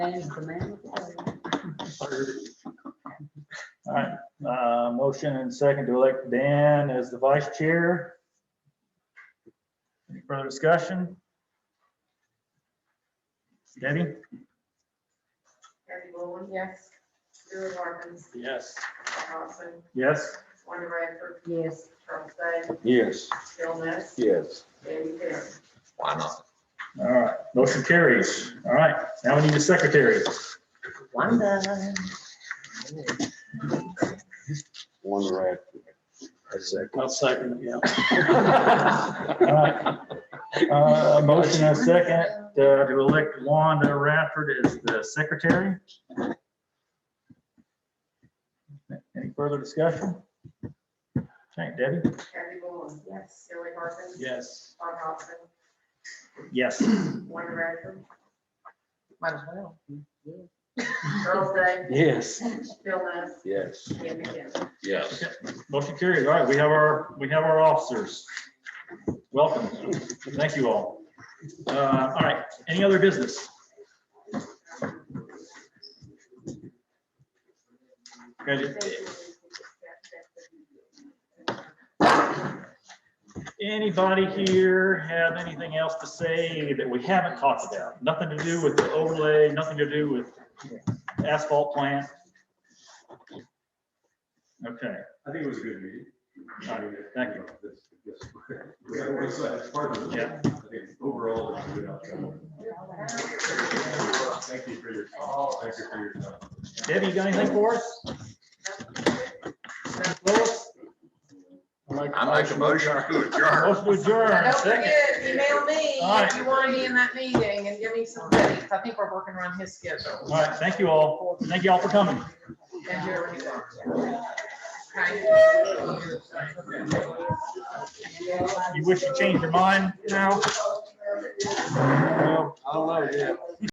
Manage the man. All right, uh, motion and second to elect Dan as the vice chair. Any further discussion? Debbie? Gary Boland, Yes. Drew Martins, Yes. Scott Dawson, Yes? Wanda Bradford, Yes. Charles Day, Yes. Bill Ness, Yes. Danny Carey. Why not? All right, motion carries. All right, now we need a secretary. Wanda. One right. That's it. I'll second it, yeah. All right. Uh, Motion and second uh, to elect Wanda Radford as the secretary. Any further discussion? Okay, Debbie? Gary Boland, Yes. Gary Martins. Yes. Scott Dawson, Yes. Wanda Bradford, Might as well. Charles Day, Yes. Bill Ness, Yes. Danny Carey. Yes. Motion carries. All right, we have our, we have our officers. Welcome. Thank you all. Uh, All right, any other business? Okay, Anybody here have anything else to say that we haven't talked about? Nothing to do with the overlay, nothing to do with asphalt plant? Okay, I think it was a good meeting. All right, thank you. We got one side, it's part of it. Yeah. I think Overall, it's a good outcome. Thank you for your, thank you for your time. Debbie, you got anything for us? Lois? I make a motion to adjourn. Motion to adjourn. Don't Second. forget, email me All right. if you want to be in that meeting and give me some dates. I think we're working around his schedule. All right, thank you all. Thank you all for coming. And your. Okay. You wish to change your mind now? I don't know, yeah.